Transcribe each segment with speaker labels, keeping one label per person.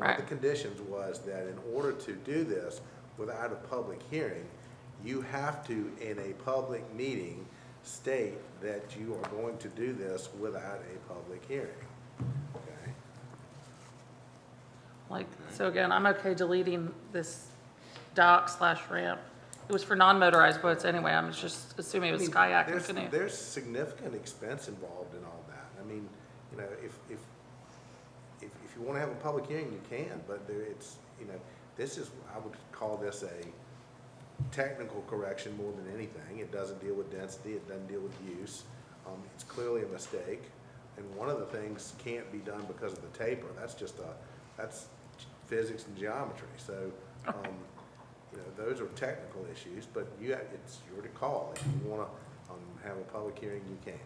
Speaker 1: the conditions was that in order to do this without a public hearing, you have to, in a public meeting, state that you are going to do this without a public hearing. Okay?
Speaker 2: Like, so again, I'm okay deleting this dock slash ramp. It was for non-motorized boats anyway, I'm just assuming it was kayak and
Speaker 1: There's-
Speaker 2: canoe.
Speaker 1: There's significant expense involved in all that. I mean, you know, if, if, if, if you wanna have a public hearing, you can, but there, it's, you know, this is, I would call this a technical correction more than anything. It doesn't deal with density, it doesn't deal with use. Um, it's clearly a mistake, and one of the things can't be done because of the taper. That's just a, that's physics and geometry, so, um, you know, those are technical issues, but you, ha- it's your to call. If you wanna, um, have a public hearing, you can.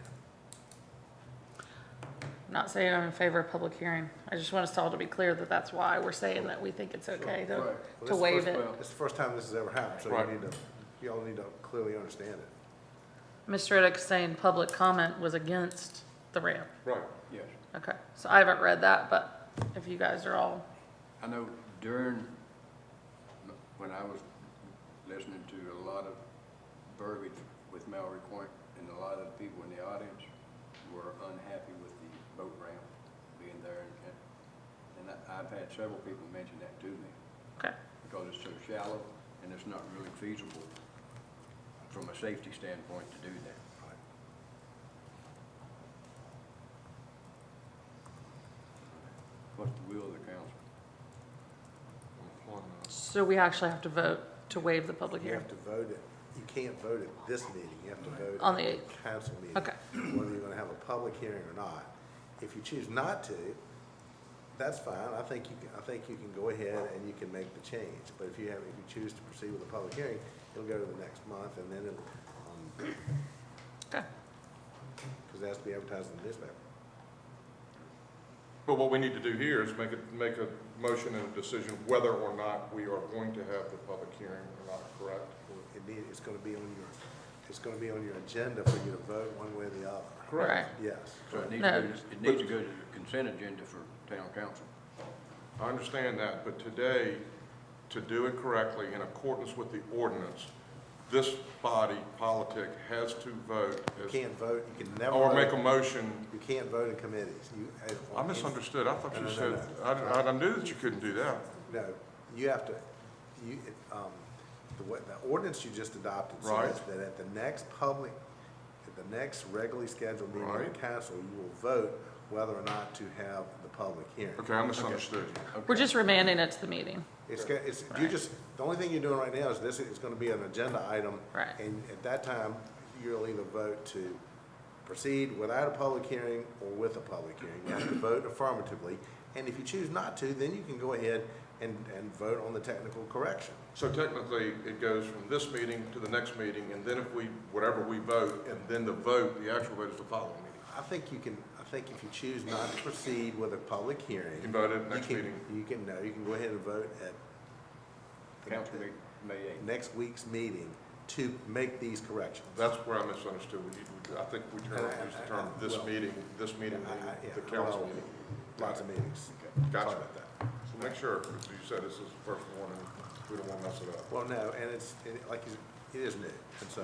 Speaker 2: Not saying I'm in favor of public hearing, I just want us all to be clear that that's why we're saying that we think it's okay
Speaker 3: Right.
Speaker 2: to,
Speaker 3: Well,
Speaker 1: Well,
Speaker 2: to
Speaker 1: this is
Speaker 2: waive
Speaker 3: first
Speaker 2: it.
Speaker 3: bill.
Speaker 1: It's the first time this has ever happened, so
Speaker 3: Right.
Speaker 1: you need to, you all need to clearly understand it.
Speaker 2: Mr. Riddick saying public comment was against the ramp.
Speaker 3: Right. Yes.
Speaker 2: Okay, so I haven't read that, but if you guys are all,
Speaker 3: I know during, m- when I was listening to a lot of verbiage with Mallory Point, and a lot of the people in the audience were unhappy with the boat ramp being there, and, and I- I've had several people mention that to me,
Speaker 2: okay,
Speaker 3: because it's so shallow, and it's not really feasible from a safety standpoint to do that. What's the will of the council?
Speaker 2: so we actually have to vote to waive the public
Speaker 1: You
Speaker 2: hearing.
Speaker 1: have to vote it, you can't vote at this meeting, you have to vote.
Speaker 2: On the
Speaker 1: at
Speaker 2: eighth.
Speaker 1: Council meeting.
Speaker 2: Okay.
Speaker 1: Whether you're gonna have a public hearing or not. If you choose not to, that's fine, I think you, can- I think you can go ahead and you can make the change. But if you have, if you choose to proceed with a public hearing, it'll go to the next month, and then it'll, um,
Speaker 2: Okay,
Speaker 1: because it has to be advertised in the newspaper.
Speaker 4: But what we need to do here is make a, make a motion and a decision whether or not we are going to have the public hearing or not, correct?
Speaker 1: It need, it's gonna be on your, it's gonna be on your agenda for you to vote one way or the other.
Speaker 2: right.
Speaker 1: Yes.
Speaker 3: So it needs
Speaker 2: No.
Speaker 3: to go, to- it needs to go to the consent agenda for town council.
Speaker 4: I understand that, but today, to do it correctly in accordance with the ordinance, this body, politic, has to vote
Speaker 1: You
Speaker 4: as,
Speaker 1: can't vote, you can never.
Speaker 4: or make a
Speaker 1: vote-
Speaker 4: motion.
Speaker 1: You can't vote in committees. You- uh,
Speaker 4: I misunderstood. I thought
Speaker 1: No,
Speaker 4: you
Speaker 1: no,
Speaker 4: said,
Speaker 1: no,
Speaker 4: I, I- I knew that you couldn't do that.
Speaker 1: No, you have to, you, um, the way, the ordinance you just adopted says
Speaker 4: Right.
Speaker 1: that at the next public, at the next regularly scheduled meeting of the
Speaker 4: Right.
Speaker 1: council, you will vote whether or not to have the public hearing.
Speaker 4: Okay, I misunderstood you.
Speaker 2: We're just remanding it to the meeting.
Speaker 1: It's, go- it's, you just, the only thing you're doing right now is this is gonna be an agenda item.
Speaker 2: Right.
Speaker 1: And at that time, you'll either vote to proceed without a public hearing or with a public hearing. You have to vote affirmatively, and if you choose not to, then you can go ahead and, and vote on the technical correction.
Speaker 4: So technically, it goes from this meeting to the next meeting, and then if we, whatever we vote, and then the vote, the actual vote is the following meeting.
Speaker 1: I think you can, I think if you choose not to proceed with a public hearing.
Speaker 4: You can vote at
Speaker 1: you
Speaker 4: next
Speaker 1: can-
Speaker 4: meeting.
Speaker 1: You can, no, you can go ahead and vote at the-
Speaker 3: Council meeting, May
Speaker 1: the
Speaker 3: eighth.
Speaker 1: next week's meeting to make these corrections.
Speaker 4: That's where I misunderstood. We need, I think we term, use the term this meeting, this meeting,
Speaker 1: I- I- yeah,
Speaker 4: the council
Speaker 1: well,
Speaker 4: meeting.
Speaker 1: Lots of meetings.
Speaker 4: Gotcha.
Speaker 1: Sorry about that.
Speaker 4: So make sure, because you said this is the first one, and we don't want to mess it up.
Speaker 1: Well, no, and it's, and it- like, you said, it is new, and so,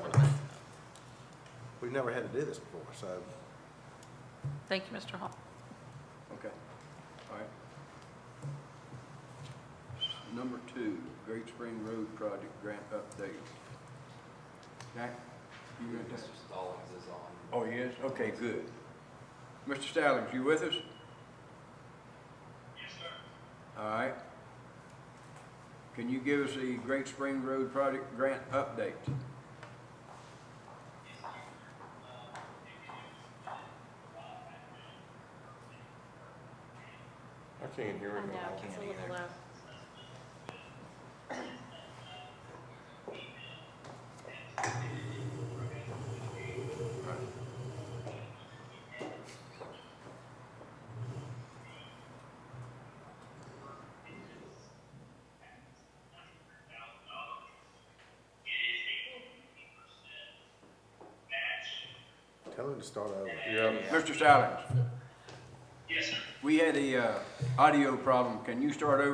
Speaker 1: we've never had to do this before, so,
Speaker 2: Thank you, Mr. Hall.
Speaker 3: Okay, all right. Number two, Great Spring Road Project Grant Update. Jack, you read that?
Speaker 5: Mr. Stallings is on.
Speaker 3: Oh, yes, okay, good. Mr. Stallings, you with us? Yes, sir. All right. Can you give us the Great Spring Road Project Grant Update?
Speaker 4: I can't hear
Speaker 6: I know,
Speaker 4: anything.
Speaker 6: it's a little low.
Speaker 1: tell them to start over.
Speaker 4: Yeah,
Speaker 3: Mr. Stallings? Yes, sir. We had a, uh, audio problem. Can you start over?